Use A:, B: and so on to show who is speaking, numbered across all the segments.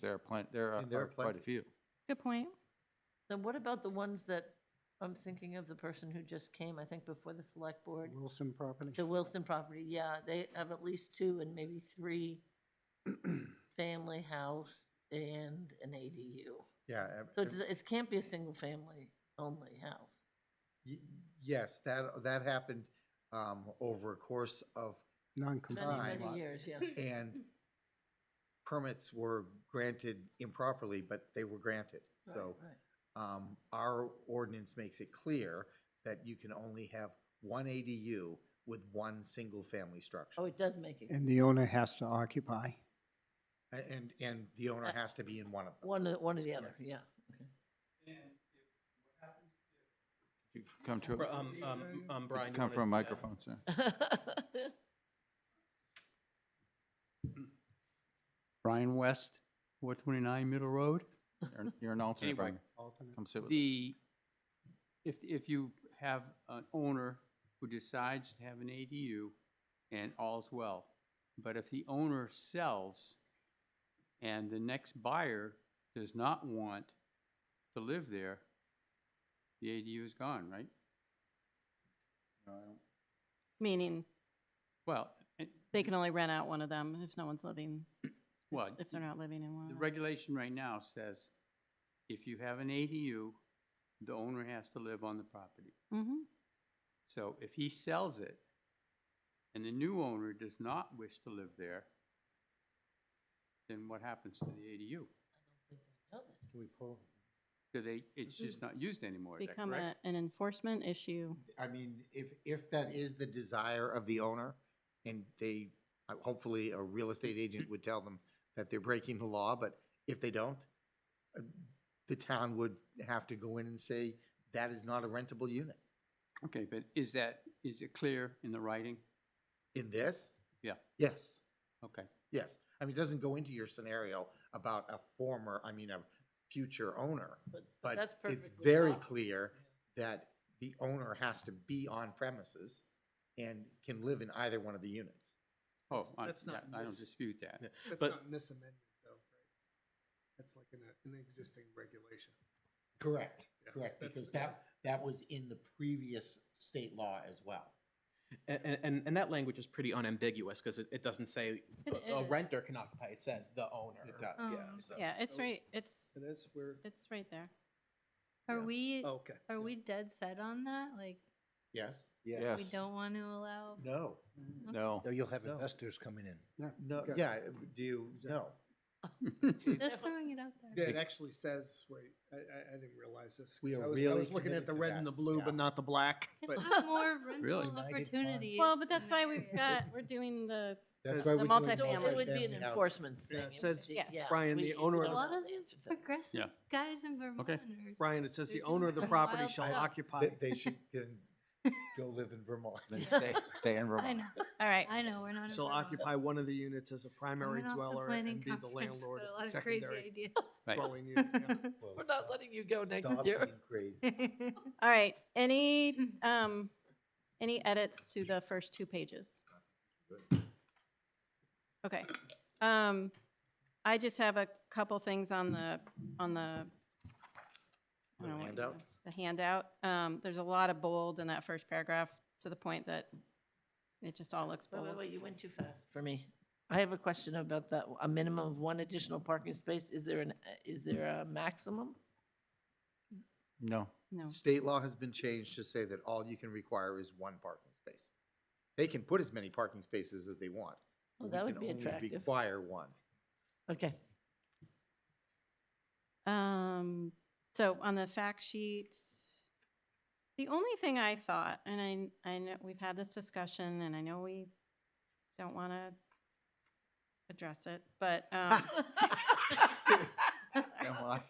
A: There are plenty, there are
B: And there are
A: are quite a
B: plenty.
A: few.
C: Good point.
D: Then what about the ones that, I'm thinking of the person who just came, I think before the select board,
B: Wilson property?
D: the Wilson property, yeah, they have at least two and maybe three family house and an ADU.
B: Yeah. ev-
D: So
B: ev-
D: it's, it can't be a single family only house.
B: y- Yes, that, that happened um, over a course of,
D: Many,
B: Fine.
D: many
B: Lot.
E: Non-compliant.
D: years, yeah.
B: and permits were granted improperly, but they were granted.
D: Right,
B: So
D: right.
B: um, our ordinance makes it clear that you can only have one ADU with one single-family structure.
D: Oh, it does make it,
E: And the owner has to occupy.
B: A- And, and the owner
D: Uh,
B: has to be in one of them.
D: one, or- one or the other, yeah.
A: You Come to,
F: Bri- Um, um, um,
A: could
F: Brian.
A: you
F: you
A: come
F: wanna-
A: from a
F: yeah.
A: microphone, sir.
G: Brian West, 429 Middle Road.
A: You're- You're an alternate,
G: Anyway,
A: Brian. Come sit with us.
G: The, if, if you have an owner who decides to have an ADU and all's well, but if the owner sells and the next buyer does not want to live there, the ADU is gone, right?
C: Meaning
G: Well, eh,
C: they can only rent out one of them if no one's living,
G: well,
C: if they're not living in one.
G: The
C: of them.
G: regulation right now says if you have an ADU, the owner has to live on the property.
C: Mhm.
G: So if he sells it and the new owner does not wish to live there, then what happens to the ADU? Do they, it's just not used anymore, is that
C: Become
G: correct?
C: a- an enforcement issue.
B: I mean, if, if that is the desire of the owner, and they, uh, hopefully, a real estate agent would tell them that they're breaking the law, but if they don't, uh, the town would have to go in and say, that is not a rentable unit.
G: Okay, but is that, is it clear in the writing?
B: In this?
G: Yeah.
B: Yes,
G: Okay,
B: yes. I mean, it doesn't go into your scenario about a former, I mean, a future owner, but
D: that's
B: it's
D: perfectly
B: very
D: possible.
B: clear that the owner has to be on premises and can live in either one of the units.
G: oh,
H: That's-
G: I,
H: that's
G: yeah,
H: not
G: I don't
H: mis-
G: dispute that.
F: Yeah,
H: That's
F: But-
H: not in this amendment, though, right? That's like in a, in the existing regulation.
B: Correct,
H: Yeah,
B: correct,
H: that's-
B: because that, that was in the previous state law as well.
F: A- a- And, and that language is pretty unambiguous because it, it doesn't say
C: It
F: a
C: is.
F: renter can occupy, it says the owner.
B: It does,
H: Um,
F: Yeah. so-
C: Yeah, it's
H: that was-
C: right, it's,
H: And that's where,
C: it's right there.
I: Are
F: Yeah.
I: we,
H: oh, okay.
I: are we dead set on that? Like,
B: Yes?
I: we
A: Yes.
I: don't want to allow?
B: No,
A: No.
J: No, you'll have
B: No.
J: investors coming in.
B: no,
H: Okay.
B: yeah, do you, no.
I: Just throwing it out there.
H: Yeah, It actually says, wait, I, I, I didn't realize this. 'cause
B: We are
H: I was- I
B: really
H: was looking
B: committed
H: at the
B: to
H: red and the
B: that,
H: blue,
B: yeah.
H: but not the black, but.
I: We'll have More
G: Really?
I: rental
J: United Farm.
I: opportunities.
C: Well, but that's why
I: we
C: we've got, we're doing the,
B: That's
H: Says-
B: why
C: The
B: we're doing
C: multifamily.
D: So it would be an
B: multifamily house.
D: enforcement
H: Yeah,
D: thing.
H: it says,
D: would be-
C: Yes.
D: yeah,
H: Brian,
D: we-
H: the owner of
D: A
H: the-
D: lot of the answers are-
I: Progressive
G: Yeah.
I: guys in Vermont
G: Okay.
I: are
H: Brian, it says
I: They're
H: the owner of the
I: doing some
H: property
I: wild
H: shall
I: stuff.
H: occupy.
B: They, they should can go live in Vermont.
A: Then stay, stay in
I: I
A: Vermont.
I: know,
C: all right.
I: I know, we're not. in
H: Shall
I: Vermont.
H: occupy one of the units as a primary
I: Coming off the
H: dweller
I: planning
H: and be the
I: conference,
H: landlord
I: got a
H: of
I: lot
H: the
I: of
H: secondary
I: Crazy
G: Right.
H: dwelling unit. yeah.
I: ideas.
D: We're not letting you go next
B: Stop
D: year.
B: being Crazy.
C: All right, any, um, any edits to the first two pages? Okay, um, I just have a couple things on the, on the. I don't know what you-
B: handout?
C: The handout, um, there's a lot of bold in that first paragraph, to the point that it just all looks
D: Wait,
C: bold.
D: wait, wait, you went too fast for me. I have a question about that, a minimum of one additional parking space, is there an, is there a maximum?
A: No.
C: No,
B: State law has been changed to say that all you can require is one parking space. They can put as many parking spaces as they want.
D: Oh,
B: but
D: that
B: we
D: would
B: can
D: be
B: only
D: attractive.
B: Require one.
D: Okay,
C: um, so on the fact sheet, the only thing I thought, and I, I know, we've had this discussion, and I know we don't want to address it, but, um,
A: Then why,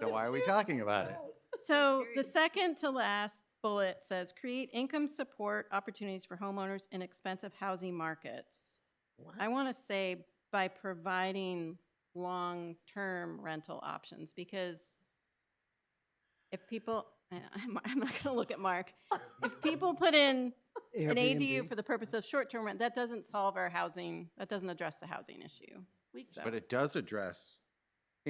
A: then why are we talking about it?
C: So the
I: Curious.
C: second to last bullet says, create income support opportunities for homeowners in expensive housing markets. I want to say by providing long-term rental options, because if people, I- I'm I'm not going to look at Mark. If people put in an ADU for the purpose of short-term rent, that doesn't solve our housing, that doesn't address the housing issue.
D: we,
C: So-
A: But it does address